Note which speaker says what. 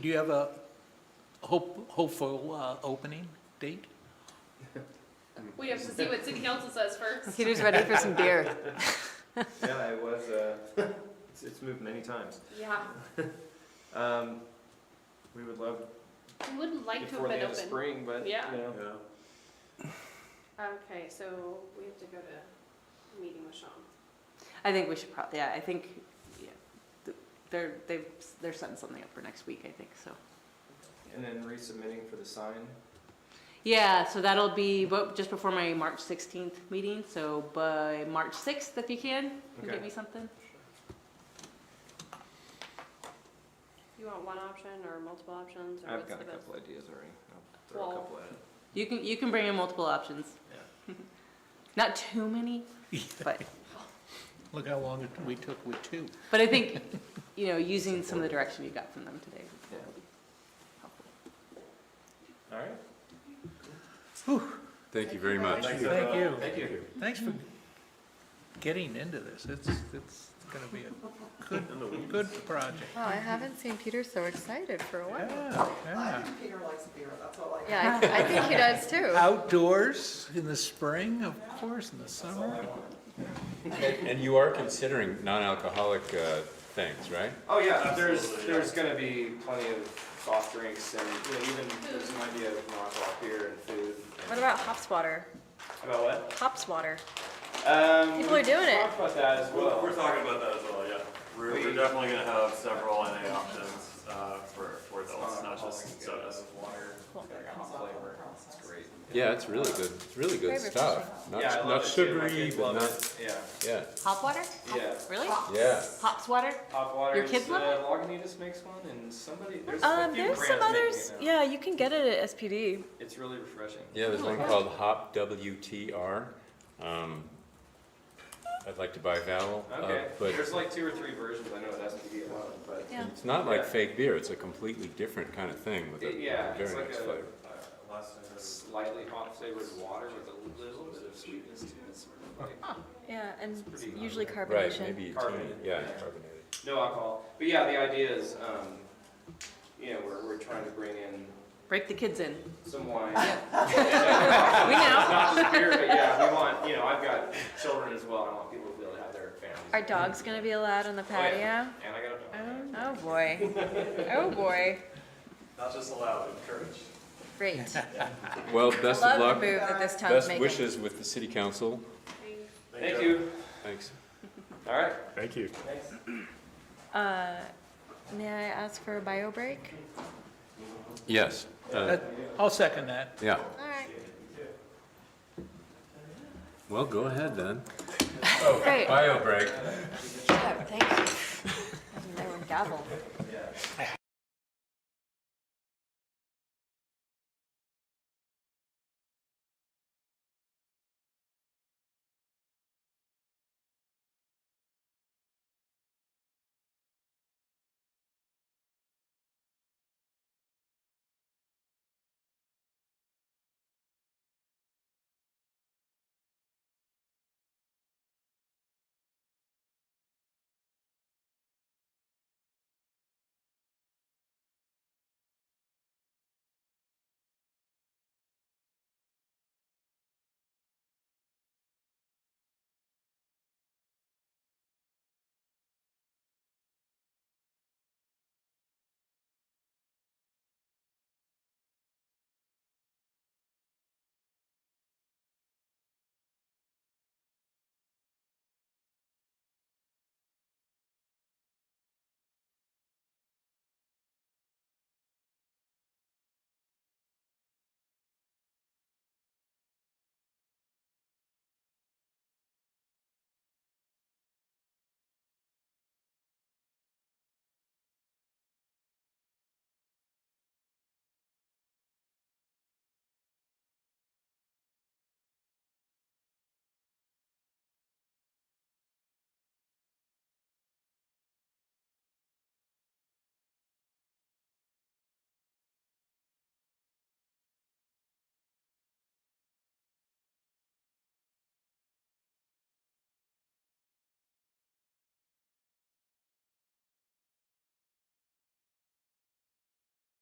Speaker 1: Do you have a hope, hopeful uh, opening date?
Speaker 2: We have to see what city council says first.
Speaker 3: Peter's ready for some beer.
Speaker 4: Yeah, it was, uh, it's, it's moved many times.
Speaker 2: Yeah,
Speaker 4: Um, we would love
Speaker 2: we would like to have
Speaker 4: before the
Speaker 2: been
Speaker 4: end of
Speaker 2: open.
Speaker 4: spring, but, you
Speaker 2: Yeah.
Speaker 4: know.
Speaker 2: Okay, so we have to go to a meeting with Sean.
Speaker 3: I think we should probably, yeah, I think, yeah, th- they're, they've, they're setting something up for next week, I think, so.
Speaker 4: And then resubmitting for the sign.
Speaker 3: Yeah, so that'll be, but just before my March sixteenth meeting, so by March sixth, if you can, can you
Speaker 4: Okay.
Speaker 3: get me something?
Speaker 2: You want one option or multiple options or
Speaker 4: I've
Speaker 2: what's the
Speaker 4: got a
Speaker 2: best?
Speaker 4: couple ideas already. I'll throw a
Speaker 2: Well-
Speaker 4: couple at it.
Speaker 3: You can, you can bring in multiple options. Not too many, but,
Speaker 1: Look how long it- we took with two.
Speaker 3: but I think, you know, using some of the direction you got from them today
Speaker 4: Yeah.
Speaker 3: would be helpful.
Speaker 4: Yeah. All right.
Speaker 5: Thank you very much.
Speaker 4: Thanks,
Speaker 1: Thank
Speaker 4: everyone.
Speaker 1: you.
Speaker 4: Thank you.
Speaker 1: Thanks for getting into this. It's, it's gonna be a good, good project.
Speaker 6: Wow, Oh, I haven't seen Peter so excited for a while.
Speaker 1: Yeah,
Speaker 7: I
Speaker 1: yeah.
Speaker 7: think Peter likes beer, that's all I know.
Speaker 6: Yeah, I I think he does too.
Speaker 1: Outdoors in the spring, of course, in the summer.
Speaker 5: And you are considering non-alcoholic uh, things, right?
Speaker 4: Oh, yeah, there's, there's gonna be plenty of soft drinks and, you know, even there's an idea of non-alcoholic beer and food.
Speaker 6: What about hops water?
Speaker 4: About what?
Speaker 6: Hops water.
Speaker 4: Um,
Speaker 6: People are
Speaker 4: we
Speaker 6: doing it.
Speaker 4: Talked about that as well.
Speaker 8: We're talking about that as well, yeah. We're,
Speaker 4: We-
Speaker 8: we're definitely gonna have several NA options, uh, for, for adults, not just
Speaker 4: Alcohol,
Speaker 8: sodas.
Speaker 4: Water, it's got hop flavor, it's great.
Speaker 5: Yeah, it's really good, it's really
Speaker 6: Very
Speaker 5: good stuff. Not,
Speaker 4: Yeah, I
Speaker 5: not
Speaker 4: love it too. My
Speaker 5: sugary,
Speaker 4: kids
Speaker 5: but
Speaker 4: love
Speaker 5: not,
Speaker 4: it. Yeah,
Speaker 5: yeah,
Speaker 3: Hop water?
Speaker 4: yeah.
Speaker 3: Really?
Speaker 5: yeah.
Speaker 3: Hops water?
Speaker 4: Hot water. uh,
Speaker 3: Your kids love it?
Speaker 4: Lagunitas makes one, and somebody there's a
Speaker 6: Um,
Speaker 4: few
Speaker 6: there's
Speaker 4: brands
Speaker 6: some
Speaker 4: making it
Speaker 6: others,
Speaker 4: now.
Speaker 6: yeah, you can get it at SPD.
Speaker 4: It's really refreshing.
Speaker 5: Yeah, there's
Speaker 6: Oh.
Speaker 5: one called Hop WTR. Um, I'd like to buy Val, uh,
Speaker 4: Okay,
Speaker 5: but
Speaker 4: there's like two or three versions. I know that's SPB alone, but
Speaker 6: Yeah.
Speaker 5: it's not like
Speaker 4: Yeah.
Speaker 5: fake beer, it's a completely different kind of thing with a
Speaker 4: it,
Speaker 5: with
Speaker 4: yeah,
Speaker 5: a
Speaker 4: it's
Speaker 5: very
Speaker 4: like
Speaker 5: nice
Speaker 4: a
Speaker 5: flavor.
Speaker 4: uh, slightly hot flavored water with a little bit of sweetness to it. It's sort of like
Speaker 6: Yeah, and
Speaker 4: It's pretty
Speaker 6: usually
Speaker 5: Right,
Speaker 6: carbonation.
Speaker 5: maybe, it's
Speaker 4: Carbonated,
Speaker 5: in- yeah,
Speaker 4: yeah.
Speaker 5: it's carbonated.
Speaker 4: no alcohol, but yeah, the idea is, um, you know, we're we're trying to bring in
Speaker 3: Break the kids in.
Speaker 4: some wine.
Speaker 3: We know.
Speaker 4: Not just beer, but yeah, we want, you know, I've got children as well, and I want people to be able to have their families.
Speaker 6: Are dogs gonna be allowed on the
Speaker 4: Oh, yeah.
Speaker 6: patio?
Speaker 4: And I got a dog.
Speaker 6: Oh, boy. Oh, boy.
Speaker 8: Not just allowed, encouraged.
Speaker 6: Great.
Speaker 5: Well,
Speaker 6: I
Speaker 5: best of
Speaker 6: love
Speaker 5: luck,
Speaker 6: the move that this town's
Speaker 5: best
Speaker 6: making.
Speaker 5: wishes with the city council,
Speaker 6: Oh.
Speaker 4: Thank you.
Speaker 5: thanks.
Speaker 4: All right.
Speaker 8: Thank you.
Speaker 4: Thanks.
Speaker 6: Uh, may I ask for a bio break?
Speaker 5: Yes, uh,
Speaker 1: That- I'll second that.
Speaker 5: yeah.
Speaker 6: All right,
Speaker 5: Well, go ahead then.
Speaker 6: great.
Speaker 5: Bio break.
Speaker 6: Yeah, Thank you. I didn't know we gavel.